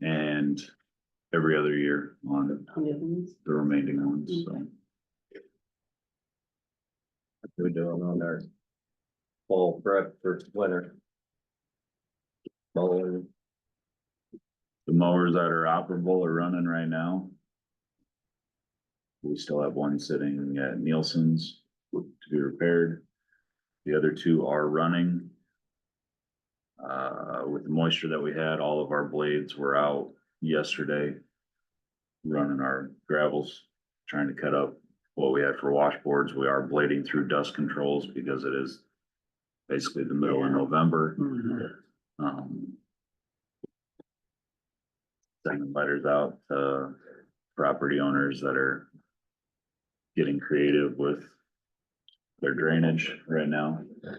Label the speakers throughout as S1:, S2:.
S1: and every other year on
S2: on the other ones.
S1: the remaining ones, so.
S3: We're doing on our fall prep for winter. Mowing,
S1: The mowers that are operable are running right now. We still have one sitting at Nielsen's to be repaired. The other two are running. Uh, with the moisture that we had, all of our blades were out yesterday. Running our gravels, trying to cut up what we had for washboards. We are blading through dust controls because it is basically the middle of
S2: Yeah.
S1: November.
S2: Mhm.
S1: Um. Sending letters out to property owners that are. Getting creative with. Their drainage right now. So,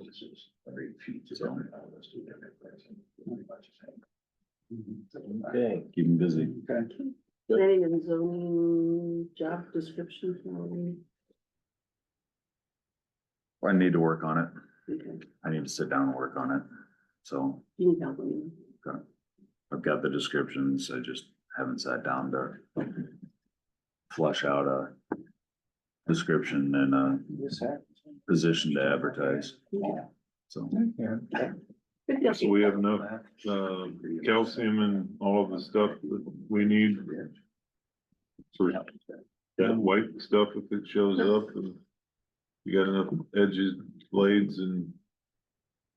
S3: okay,
S1: keep them busy.
S2: Planning and zoning job description for me.
S1: I need to work on it.
S2: Okay.
S1: I need to sit down and work on it. So
S2: You need help with me.
S1: I've got the descriptions. I just haven't sat down to. Flush out a. Description and a position to advertise,
S2: Okay.
S1: so.
S2: Good deal.
S4: So we have enough, um, calcium and all of the stuff that we need for that white stuff if it shows up and you got enough edges, blades and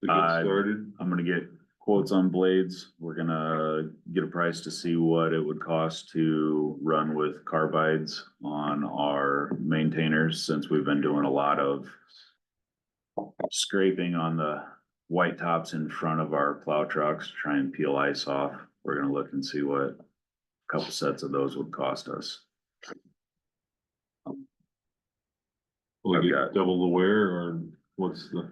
S4: to
S1: Uh,
S4: get started.
S1: I'm gonna get quotes on blades. We're gonna get a price to see what it would cost to run with carbides on our maintainers, since we've been doing a lot of scraping on the white tops in front of our plow trucks, to try and peel ice off. We're gonna look and see what a couple sets of those would cost us.
S4: Will it
S1: I've got-
S4: get double the wear or what's the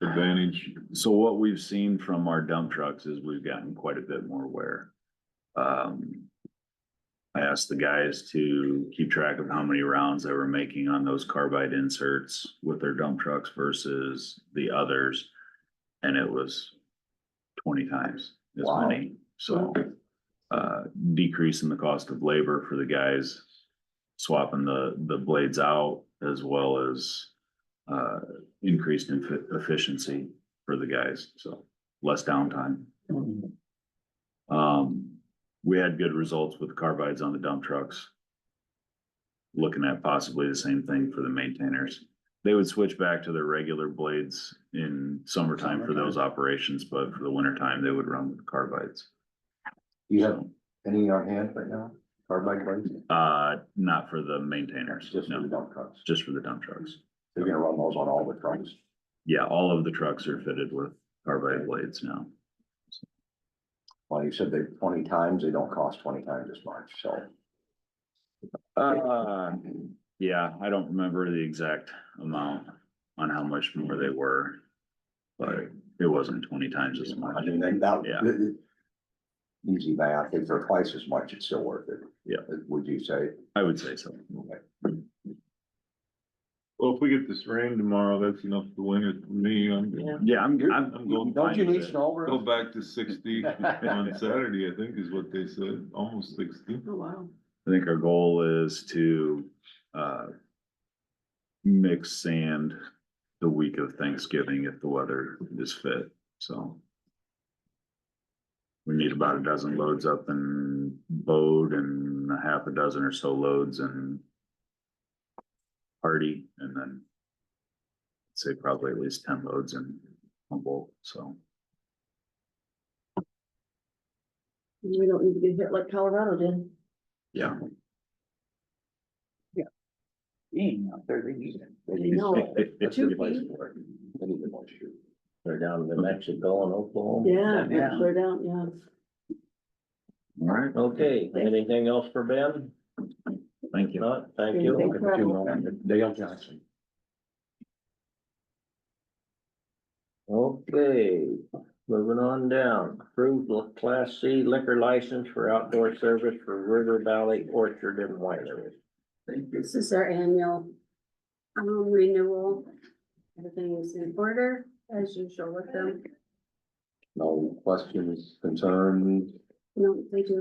S4: advantage?
S1: So what we've seen from our dump trucks is we've gotten quite a bit more wear. Um. I asked the guys to keep track of how many rounds they were making on those carbide inserts with their dump trucks versus the others. And it was twenty times as
S3: Wow.
S1: many, so. Uh, decrease in the cost of labor for the guys swapping the, the blades out as well as. Uh, increased in efficiency for the guys, so less downtime. Um, we had good results with carbides on the dump trucks. Looking at possibly the same thing for the maintainers. They would switch back to their regular blades in summertime for those operations, but for the wintertime, they would run with carbides.
S3: you have any in our hand right now, carbide blades,
S1: Uh, not for the maintainers,
S3: just for the
S1: no,
S3: dump trucks,
S1: just for the dump trucks.
S3: they're gonna run those on all the trucks.
S1: Yeah, all of the trucks are fitted with carbide blades now.
S3: Well, you said they twenty times, they don't cost twenty times as much, so.
S1: Uh, yeah, I don't remember the exact amount on how much more they were. But it wasn't twenty times as
S3: I
S1: much.
S3: mean, then that.
S1: Yeah.
S3: th- th- Easy math, if they're twice as much, it's still worth it.
S1: Yeah.
S3: Would you say?
S1: I would say so.
S4: Well, if we get this rain tomorrow, that's enough to win it for me. I'm,
S2: Yeah.
S1: Yeah, I'm, I'm,
S4: I'm going-
S1: I'm
S3: Don't you
S1: fine
S3: need
S1: with it.
S3: snow?
S4: go
S3: Rick?
S4: back to sixty on Saturday, I think is what they said, almost sixty.
S2: Oh, wow.
S1: I think our goal is to, uh. Mix sand the week of Thanksgiving if the weather is fit, so. We need about a dozen loads up in Bode and a half a dozen or so loads in Hardy and then. Say probably at least ten loads in Humboldt, so.
S2: We don't need to get hit like Colorado did.
S1: Yeah.
S3: Being out there, they need it.
S2: I know.
S3: That's a good place for it. They need the moisture. They're down in Mexico and Oklahoma.
S2: Yeah,
S3: Yeah.
S2: clear down, yeah.
S1: Alright,
S5: Okay, anything else for Ben?
S1: thank you.
S5: Not, thank
S2: Anything
S5: you.
S2: for everyone?
S3: Dale Johnson.
S5: Okay, moving on down. Approved li- Class C liquor license for outdoor service for River Valley Orchard and Winery.
S2: This is our annual um, renewal. Everything is in order as usual with them.
S3: No questions, concerns?
S2: No, they do